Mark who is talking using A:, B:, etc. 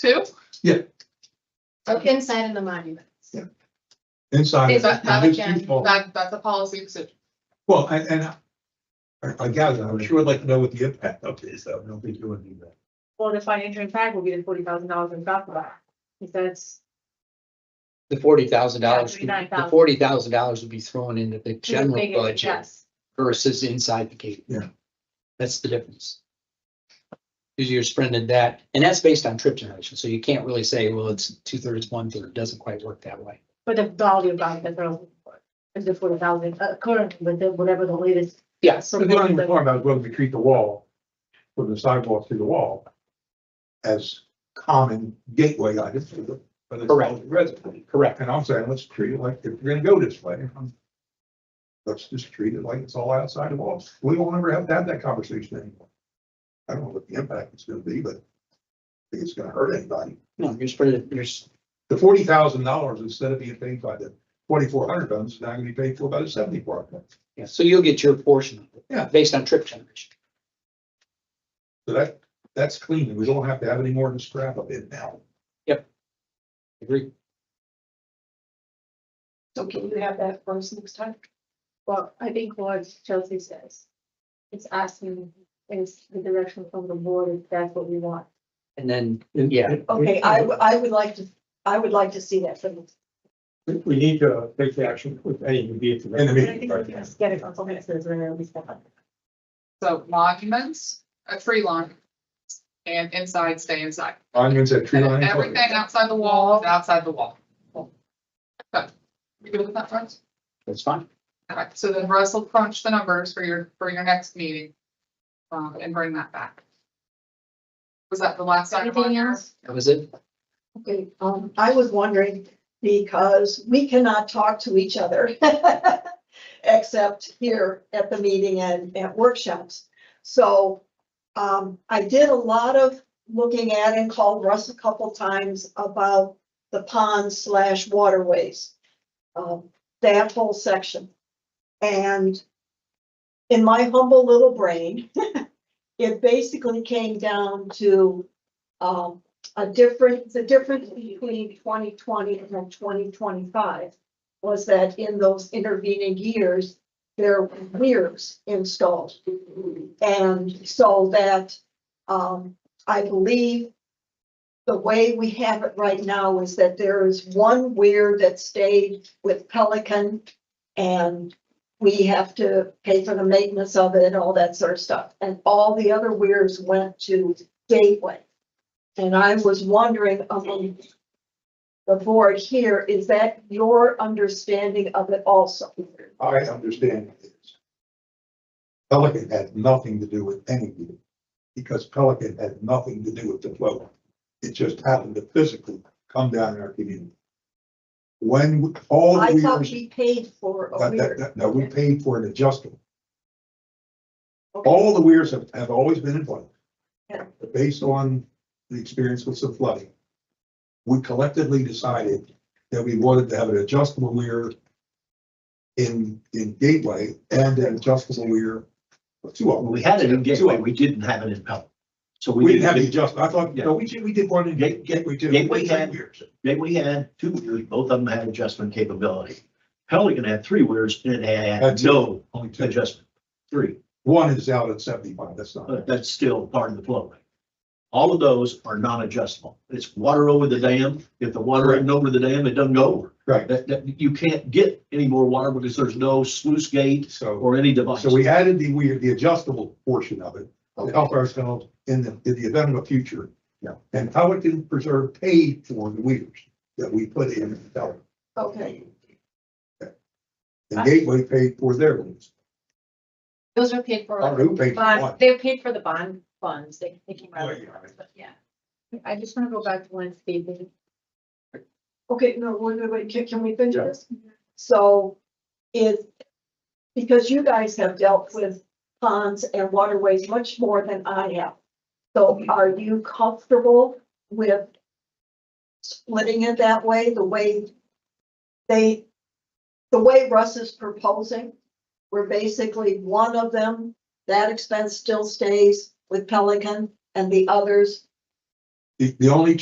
A: Two?
B: Yeah.
C: So inside of the monument.
B: inside.
A: Is
B: of
A: that, that
B: his
A: again,
B: people.
A: that, that's a policy, so
B: Well, and, and I- I gather, I'm sure I'd like to know what the impact of this, though. I don't think you would do that.
D: Well, the financial impact will be the forty thousand dollars in golf bag. If that's,
E: The forty thousand dollars,
D: Yeah,
E: the
D: $39,000.
E: forty thousand dollars would be thrown into the general budget
D: yes,
E: versus inside the gate.
B: Yeah.
E: That's the difference. Because you're spending that, and that's based on trip generation, so you can't really say, well, it's two thirds, one third, It doesn't quite work that way.
D: but the value of golf that they're looking for is the forty thousand, uh, currently, but then whatever the latest.
E: Yes,
B: But they don't even talk about whether we treat the wall, put the sidewalk through the wall as common gateway items for the, for the
E: Correct.
B: college resident.
E: correct.
B: And I'm saying, let's treat it like, if you're gonna go this way, um, let's just treat it like it's all outside the walls. We won't ever have to have that conversation anymore. I don't know what the impact is gonna be, but I think it's gonna hurt anybody.
E: No, you're spreading, you're, s-
B: The forty thousand dollars, instead of being paid by the forty-four hundred tons, is now gonna be paid for by the seventy-four hundred.
E: yeah, so you'll get your portion of it.
B: Yeah.
E: Based on trip generation.
B: So that, that's clean. We don't have to have any more of this crap of it now.
E: Agree?
C: So can you have that for us next time?
D: Well, I think what Chelsea says, it's asking, is the direction from the board, if that's what we want.
E: And then, yeah,
F: Okay, I, w- I would like to, I would like to see that from.
G: We, we need to uh, take the action with A and B. at the
B: In the
D: I
B: meeting,
D: think
B: right?
D: we just Get it on something that says, we're gonna be stuck.
A: so monuments, a tree line. And inside, stay inside.
B: Monuments at tree
A: And
B: line.
A: everything outside the wall is outside the wall. Okay. You good with that, Russ?
E: that's fine.
A: Alright, so then Russell crunch the numbers for your, for your next meeting. Um, and bring that back. Was that the last item? on
C: Anything
A: your-
C: else?
E: That was it.
F: Okay, um, I was wondering, because we cannot talk to each other. Except here at the meeting and at workshops. So, um, I did a lot of looking at and called Russ a couple times about the pond slash waterways. Um, that whole section. And in my humble little brain, it basically came down to, um, a difference, the difference between twenty twenty and twenty twenty-five was that in those intervening years, there were weirs installed. And so that, um, I believe the way we have it right now is that there is one weir that stayed with Pelican and we have to pay for the maintenance of it and all that sort of stuff. And all the other weirs went to Gateway. And I was wondering among the board here, is that your understanding of it also?
B: I understand this. Pelican had nothing to do with any of it, because Pelican had nothing to do with the flow. It just happened to physically come down in our community. When all
F: I
B: the
F: thought
B: weirs,
F: we paid for
B: that,
F: a
B: that,
F: weird.
B: that, no, we paid for an adjustable. All the weirs have, have always been in flood.
F: Yeah.
B: Based on the experience with some flooding. We collectively decided that we wanted to have an adjustable weir in, in Gateway and an adjustable weir. Two of
H: Well,
B: them.
H: we had it in
B: Two of
H: Gateway,
B: them.
H: we didn't have it in Pelican. So
B: We didn't have the
H: did-
B: adjust, I thought, no, we did, we did one in
H: Gate-
B: Gateway too.
H: Gateway
B: Three
H: had-
B: weirs.
H: Gateway had two weirs, both of them had adjustment capability. Pelican had three weirs and it
B: Had
H: had
B: two.
H: no
B: Only two.
H: adjustment, three,
B: One is out at seventy-five, that's not,
H: but that's still part of the flow rate. All of those are non-adjustable. It's water over the dam. If the water isn't over the dam, it doesn't go over.
B: right,
H: That, that, you can't get any more water because there's no sluice gate
B: so.
H: or any device.
B: So we added the weird, the adjustable portion of it to
H: Okay.
B: help ourselves in the, in the event of a future.
H: Yeah.
B: And Pelican Preserve paid for the weirs that we put in. Pelican.
F: Okay,
B: The Gateway paid for their ones.
C: Those are paid
B: I don't
C: for,
B: know who paid for
C: bond,
B: what.
C: they're paid for the bond funds, they, they came out
B: Oh,
C: of the
B: yeah.
C: funds, but yeah.
D: I just wanna go back to one statement.
F: okay, no, wait, wait, wait, can, can we finish
B: Yeah.
F: this? So is, because you guys have dealt with ponds and waterways much more than I have. So are you comfortable with splitting it that way, the way they, the way Russ is proposing? Where basically one of them, that expense still stays with Pelican and the others
B: The, the only